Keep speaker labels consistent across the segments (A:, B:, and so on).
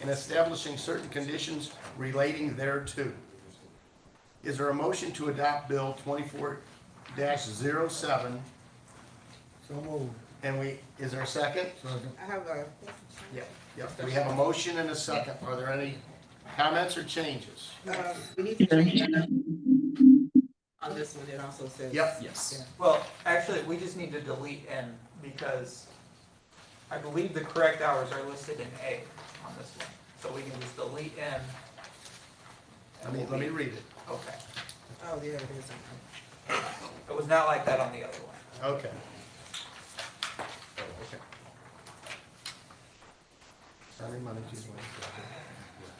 A: and establishing certain conditions relating thereto. Is there a motion to adopt Bill twenty-four 7
B: So moved.
A: And we, is there a second?
B: Second.
C: I have a,
A: Yep. Yep, we have a motion and a second. Are there any comments or changes?
C: uh, we need to change that up. on this one, it also says.
A: Yep.
D: Yes.
E: Well, actually, we just need to delete N because I believe the correct hours are listed in A on this one. So we can just delete N.
A: Let me, let me read it.
E: Okay.
C: Oh, yeah, it is.
E: It was not like that on the other one.
A: Okay. Sunday, Monday, Tuesday, Wednesday.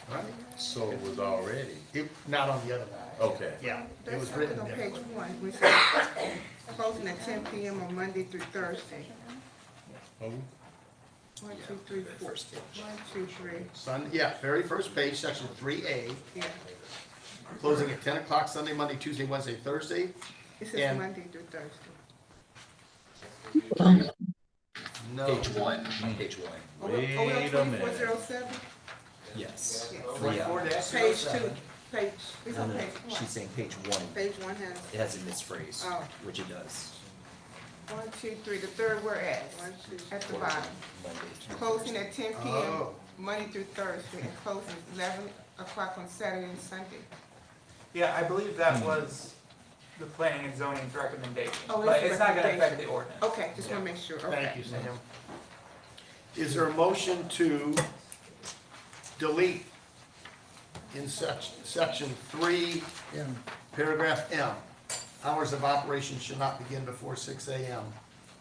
A: All right.
D: So it was already,
A: It, not on the other one.
D: okay.
A: Yeah, it was
C: That's
A: written
C: on page
A: differently.
C: one, we said, closing at ten PM on Monday through Thursday.
D: Oh,
C: One, two, three, four. One, two, three,
A: Sun, yeah, very first page, section three A,
C: yeah.
A: closing at ten o'clock Sunday, Monday, Tuesday, Wednesday, Thursday.
C: It
A: Yeah.
C: says Monday through Thursday. Oh,
A: No,
F: Page one, page one,
C: Are we- are we on
D: Wait a
C: 2407?
F: yes.
C: Yes.
A: twenty-four dash
C: Page two, page, it's on page one.
F: She's saying page one,
C: Page one has
F: it has a misphrase,
C: Oh.
F: which it does.
C: one, two, three, the third whereas, at the
F: Monday
C: bottom.
F: to
C: Closing at ten PM,
A: Oh.
C: Monday through Thursday, and closing at eleven o'clock on Saturday and Sunday.
E: Yeah, I believe
A: Hmm.
E: that was the planning and zoning's recommendation,
C: Oh,
E: but
C: it's
E: it's not gonna affect the
C: recommendation.
E: ordinance.
C: Okay, just wanna make sure, okay.
A: thank you, Sam. Is there a motion to delete in section, section three,
B: M.
A: paragraph M? Hours of operation shall not begin before six AM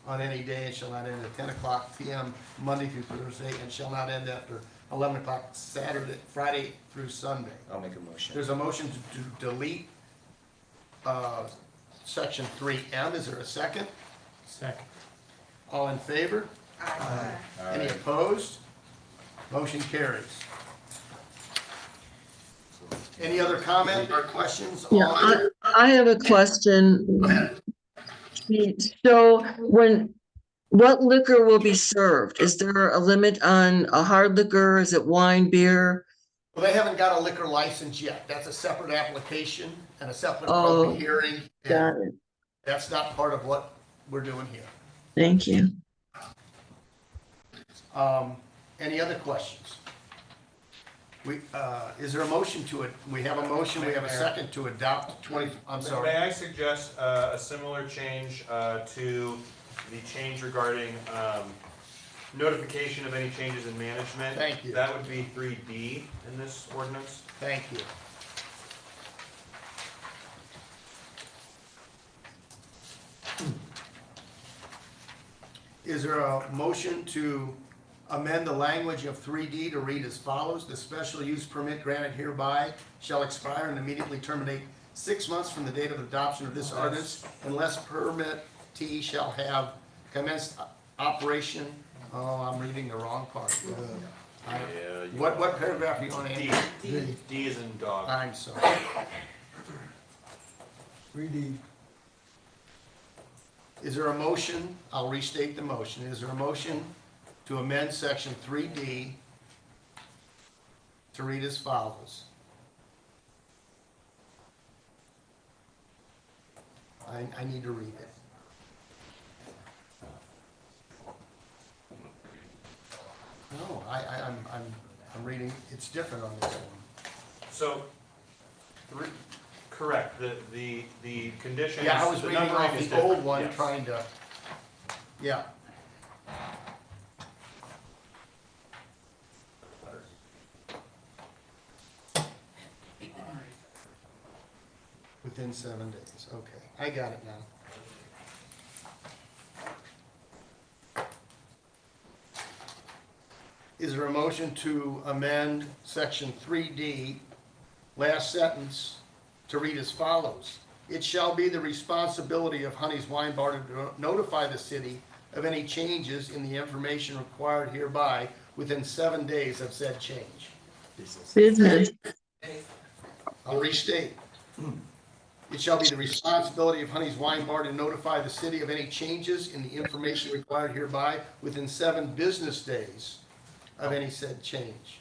A: on any day and shall not end at ten o'clock PM Monday through Thursday and shall not end after eleven o'clock Saturday, Friday through Sunday.
F: I'll make a motion.
A: There's a motion to to delete uh, section 3M. Is there a second? Second. All in favor?
C: Aye.
A: Any opposed? Motion carries. Any other comment or questions? on-
G: Yeah, I, I have a question. So when, what liquor will be served? Is there a limit on a hard liquor? Is it wine, beer?
A: Well, they haven't got a liquor license yet. That's a separate application and a separate
G: Oh.
A: public hearing. and
G: Got it.
A: That's not part of what we're doing here.
G: Thank you.
A: Um, any other questions? We, uh, is there a motion to it? We have a motion, we have a second to adopt twenty, I'm
H: May
A: sorry.
H: I suggest uh, a similar change uh, to the change regarding um, notification of any changes in management?
A: Thank you.
H: That would be three D in this ordinance.
A: Thank you. Is there a motion to amend the language of three D to read as follows? The special use permit granted hereby shall expire and immediately terminate six months from the date of adoption of this ordinance unless permittee shall have commenced operation. Oh, I'm reading the wrong part. I-
D: Yeah, you-
A: What, what paragraph are you on, Uh. Andy?
H: D, D is in dog.
A: I'm sorry.
B: Three D.
A: Is there a motion? I'll restate the motion. Is there a motion to amend section three D to read as follows? I, I need to read it. No, I, I, I'm, I'm, I'm reading, it's different on this one.
H: So, three, correct, the, the, the conditions,
A: Yeah, I was
H: the
A: reading
H: numbering
A: off
H: is
A: the old
H: different,
A: one,
H: yes.
A: trying to, yeah. Within seven days, okay, I got it now. Is there a motion to amend section three D, last sentence, to read as follows? It shall be the responsibility of Honey's Wine Bar to notify the city of any changes in the information required hereby within seven days of said change.
G: Business.
A: I'll restate. It shall be the responsibility of Honey's Wine Bar to notify the city of any changes in the information required hereby within seven business days of any said change.